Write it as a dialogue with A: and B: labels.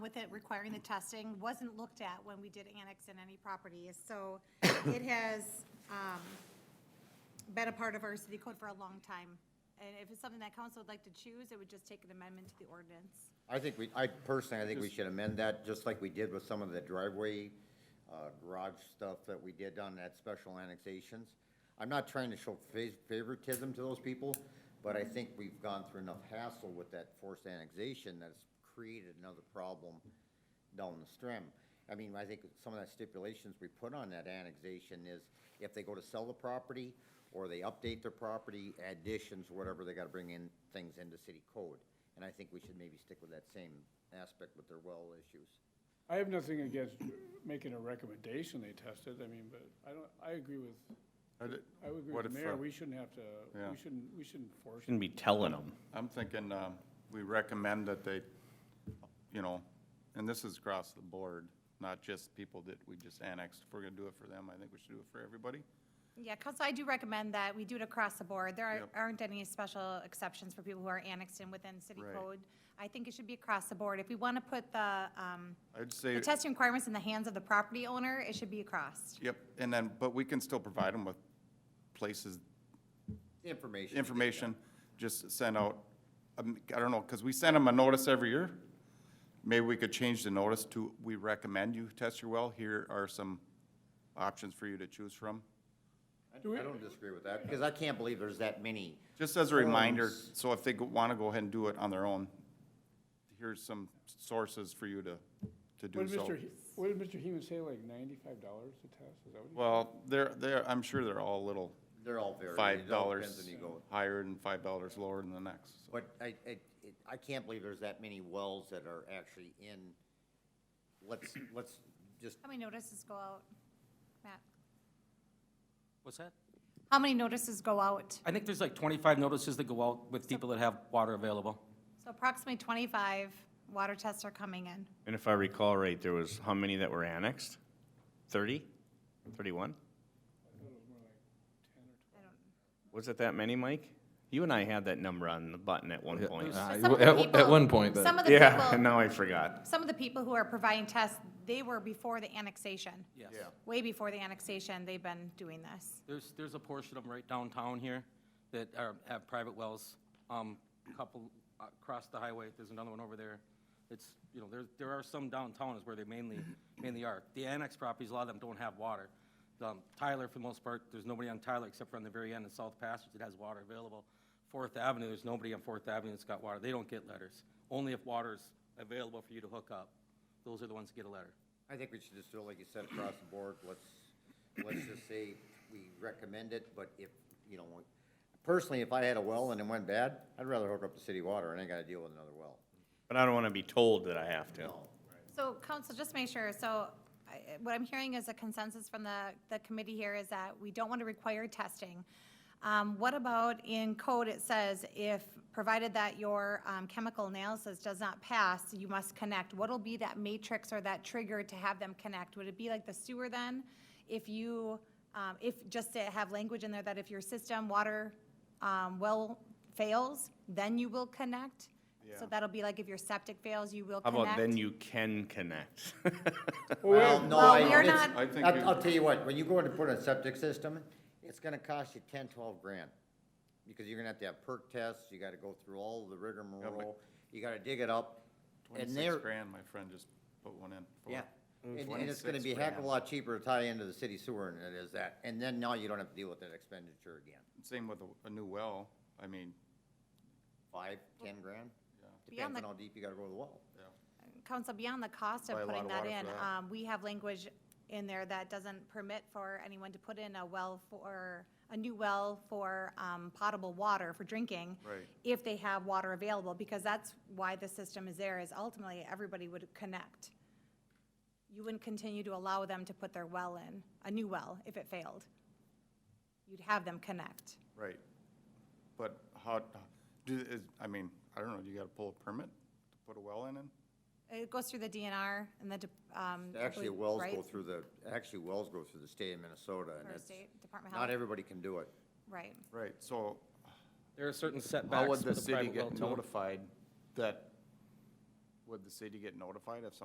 A: with it requiring the testing wasn't looked at when we did annex in any properties. So it has um, been a part of our city code for a long time. And if it's something that council would like to choose, it would just take an amendment to the ordinance.
B: I think we, I personally, I think we should amend that, just like we did with some of the driveway, uh, garage stuff that we did on that special annexations. I'm not trying to show fa- favoritism to those people, but I think we've gone through enough hassle with that forced annexation that's created another problem down the stream. I mean, I think some of that stipulations we put on that annexation is if they go to sell the property or they update their property, additions, whatever, they gotta bring in things into city code. And I think we should maybe stick with that same aspect with their well issues.
C: I have nothing against making a recommendation they test it, I mean, but I don't, I agree with,
D: I did-
C: I would agree
D: What
C: with the
D: if,
C: mayor,
D: uh,
C: we shouldn't have to,
D: Yeah.
C: we shouldn't, we shouldn't force it.
E: Shouldn't be telling them.
D: I'm thinking, um, we recommend that they, you know, and this is across the board, not just people that we just annexed. If we're gonna do it for them, I think we should do it for everybody.
A: Yeah, council, I do recommend that we do it across the board. There are-
D: Yep.
A: aren't any special exceptions for people who are annexed in within city
D: Right.
A: code. I think it should be across the board. If we want to put the, um,
D: I'd
A: the
D: say,
A: testing requirements in the hands of the property owner, it should be across.
D: yep, and then, but we can still provide them with places,
B: Information.
D: information, just send out, um, I don't know, because we send them a notice every year. Maybe we could change the notice to, we recommend you test your well. Here are some options for you to choose from.
B: I I don't disagree with that, because I can't believe there's that many.
D: Just as a reminder,
B: forums.
D: so if they want to go ahead and do it on their own, here's some sources for you to, to
C: What
D: do
C: did
D: so.
C: Mr., He- what did Mr. Heeman say, like ninety-five dollars to test, is that what he?
D: Well, they're, they're, I'm sure they're all little
B: They're all varied.
D: five
B: It all depends
D: dollars
B: on you go.
D: higher and five dollars lower than the next. so.
B: But I, I, it- I can't believe there's that many wells that are actually in, let's, let's just,
A: How many notices go out, Matt?
F: What's that?
A: How many notices go out?
F: I think there's like 25 notices that go out with people that have water available.
A: So approximately 25 water tests are coming in.
E: And if I recall right, there was how many that were annexed? 30? 31? Was it that many, Mike? You and I had that number on the button at one point.
A: But
G: Uh,
A: some of the
G: at-
A: people-
G: at one point, but-
A: Some of the
E: Yeah, and
A: people,
E: now I forgot.
A: some of the people who are providing tests, they were before the annexation.
F: Yes.
A: Way before the annexation, they've been doing this.
F: There's, there's a portion of them right downtown here that are, have private wells. Um, a couple uh, across the highway, there's another one over there. It's, you know, there, there are some downtown is where they mainly, mainly are. The annex properties, a lot of them don't have water. Um, Tyler, for the most part, there's nobody on Tyler except for on the very end in South Passage that has water available. Fourth Avenue, there's nobody on Fourth Avenue that's got water. They don't get letters. Only if water's available for you to hook up, those are the ones that get a letter.
B: I think we should just do it like you said, across the board, let's, let's just say we recommend it, but if, you know, personally, if I had a well and it went bad, I'd rather hook up to city water and I ain't gotta deal with another well.
E: But I don't want to be told that I have to.
A: So council, just make sure, so I- what I'm hearing is a consensus from the, the committee here is that we don't want to require testing. Um, What about in code, it says if, provided that your um, chemical analysis does not pass, you must connect. What'll be that matrix or that trigger to have them connect? Would it be like the sewer then? If you, um, if, just to have language in there that if your system water um, well fails, then you will connect? So that'll be like if your septic fails, you will
E: How
A: connect?
E: about then you can connect?
B: Well, no,
A: Well,
B: I,
A: we are
B: it's-
A: not-
D: I think
B: I'll,
D: you-
B: I'll tell you what, when you go in to put in a septic system, it's gonna cost you ten, twelve grand. Because you're gonna have to have perk tests, you gotta go through all the rigmarole, you gotta dig it up. And
D: Twenty-six
B: there,
D: grand, my friend just put one in. for.
B: Yeah, and, and it's gonna
D: 26
B: be a heck of a
D: grand.
B: lot cheaper to tie into the city sewer than it is that, and then now you don't have to deal with that expenditure again.
D: Same with a, a new well, I mean,
B: Five, ten grand?
A: Beyond
B: Depends on
A: the-
B: how deep you gotta go to the well.
A: Council, beyond the cost
D: Buy
A: of
D: a lot
A: putting
D: of
A: that
D: water for
A: in,
D: that.
A: um, we have language in there that doesn't permit for anyone to put in a well for, a new well for, um, potable water for drinking.
D: Right.
A: If they have water available, because that's why the system is there, is ultimately everybody would connect. You wouldn't continue to allow them to put their well in, a new well, if it failed. You'd have them connect.
D: right. But how, do, is, I mean, I don't know, you gotta pull a permit to put a well in it?
A: It goes through the DNR and the, de- um. I
B: Actually,
A: believe-
B: wells go
A: right?
B: through the, actually, wells go through the state of Minnesota, and
A: Or
B: it's,
A: state, Department of
B: not
A: Health,
B: everybody can do it.
A: right.
D: Right, so
F: There are certain setbacks
D: How would
F: with
D: the
F: a
D: city
F: private well
D: get
F: too.
D: notified that, would the city get notified if